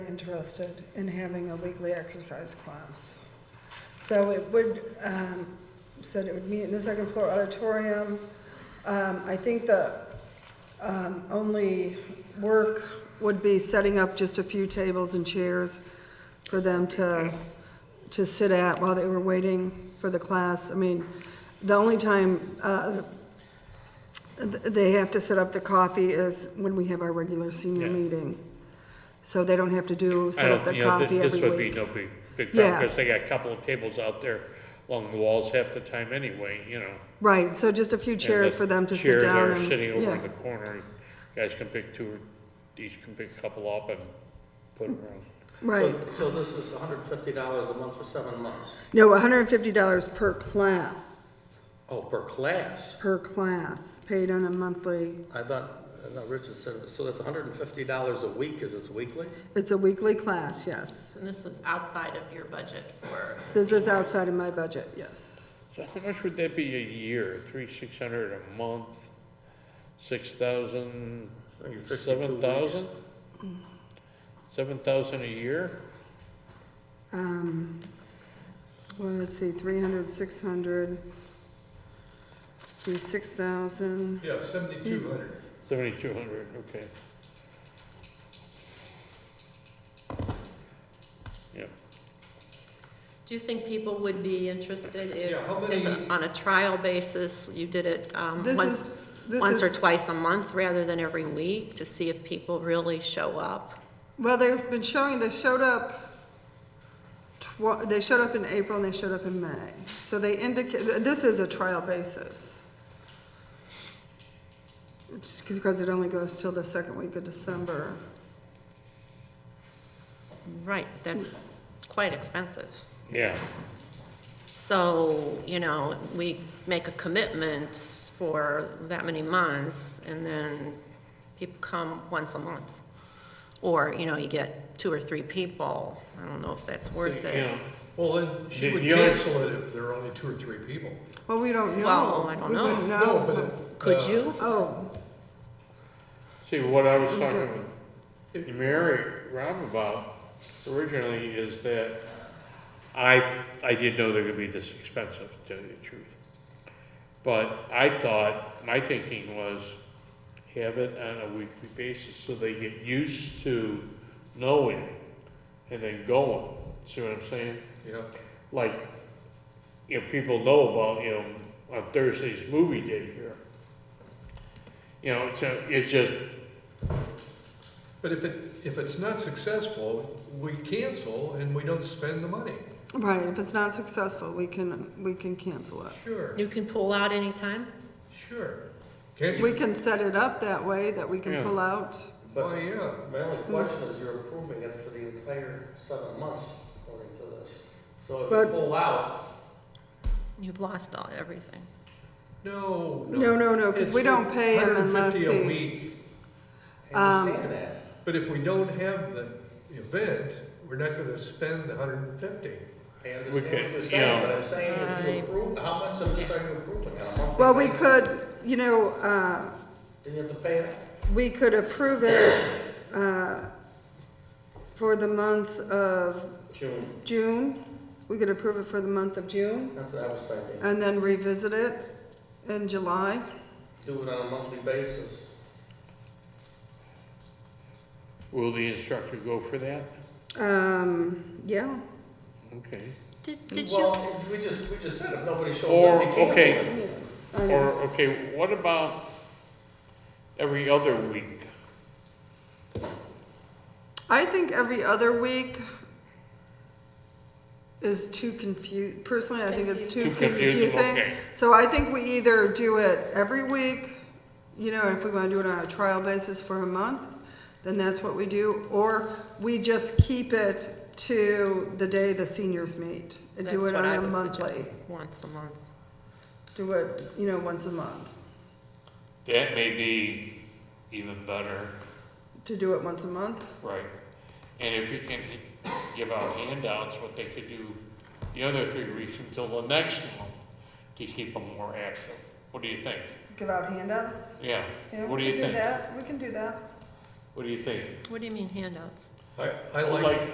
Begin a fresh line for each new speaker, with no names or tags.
interested in having a weekly exercise class. So it would, um, said it would meet in the second floor auditorium. Um, I think the, um, only work would be setting up just a few tables and chairs for them to, to sit at while they were waiting for the class. I mean, the only time, uh, th- they have to set up the coffee is when we have our regular senior
Yeah.
meeting. So they don't have to do,
I
set up
don't,
the
you know, th-
coffee every week.
this would be no big, big
Yeah.
problem, because they got a couple of tables out there along the walls half the time anyway, you know. and
Right, so just a few chairs
the
for them to sit down
Chairs
and-
are sitting over in
yeah.
the corner, guys can pick two, or- each can pick a couple up and put them around.
Right,
So- So this is hundred and fifty dollars a month for seven months?
no, hundred and fifty dollars per class,
Oh, per class?
per class, paid on a monthly,
I thought, I thought Richard said, so that's hundred and fifty dollars a week, is this weekly?
it's a weekly class, yes.
And this is outside of your budget for.
This is outside of my budget, yes.
So how much would that be a year? Three, six hundred a month? Six thousand,
So you're 52
seven
weeks.
thousand? Seven thousand a year?
Um, well, let's see, three hundred, six hundred, be six thousand,
Yeah, seventy-two hundred.
Seventy-two hundred, okay. Yep.
Do you think people would be interested if,
Yeah, how
is
many-
it on a trial basis, you did it um,
This
once,
is- this
once or
is-
twice a month rather than every week to see if people really show up?
Well, they've been showing, they showed up, tw- they showed up in April and they showed up in May. So they indicate, this is a trial basis. Just because it only goes till the second week of December.
Right, that's quite expensive.
Yeah,
So, you know, we make a commitment for that many months and then people come once a month. Or, you know, you get two or three people. I don't know if that's
you
worth it.
know,
Well, then she
The-
would
the only-
cancel it if there are only two or three people.
Well, we don't know.
Well, I don't
We
know.
wouldn't
No, but it.
Could
uh,
you?
Oh,
see, what I was
Okay.
talking with Mary Rob about originally is that I, I didn't know they were gonna be this expensive, to tell you the truth. But I thought, my thinking was, have it on a weekly basis so they get used to knowing and then going, see what I'm saying?
Yeah,
like, you know, people know about, you know, on Thursday's movie day here. You know, it's a, it's just,
but if it, if it's not successful, we cancel and we don't spend the money.
right, if it's not successful, we can, we can cancel it.
Sure,
You can pull out anytime?
sure. Can't
We
you?
can set it up that way, that we can
Yeah.
pull out.
Oh,
But
yeah.
my only
Mm-hmm.
question is, you're approving it for the entire seven months, according to this. So if
But-
you pull out,
You've lost all, everything.
No, no.
No, no, no, because we don't pay them unless
Hundred and fifty a
he.
week,
I
Um,
understand that.
but if we don't have the event, we're not gonna spend the hundred and fifty.
I
we
understand
could,
what you're
you
saying,
know-
but I'm saying if you
Right.
approve, how much of this are you approving on a monthly basis?
Well, we could, you know, uh,
Then you have to pay it?
We could approve it uh, for the month of
June,
June. We could approve it for the month of June
that's what I was thinking.
and then revisit it in July.
Do it on a monthly basis.
will the instructor go for that?
Um, Yeah,
Okay.
Did, did you,
Well, we just, we just said if nobody shows
Or,
up, you cancel it.
okay, or, okay, what about every other week?
I think every other week is too confused. Personally, I think it's too
Too confusing,
confusing.
okay.
So I think we either do it every week, you know, if we want to do it on a trial basis for a month, then that's what we do. Or we just keep it to the day the seniors meet and
that's
do it on
what I
a
would suggest,
monthly.
once a month.
Do it, you know, once a month,
That may be even better,
to do it once a month.
right? And if you can give out handouts, what they could do the other three weeks until the next month to keep them more active. What do you think?
Give out handouts.
Yeah,
Yeah,
what do
we
you
can do
think?
that. We can do that.
What do you think?
What do you mean handouts?
I like-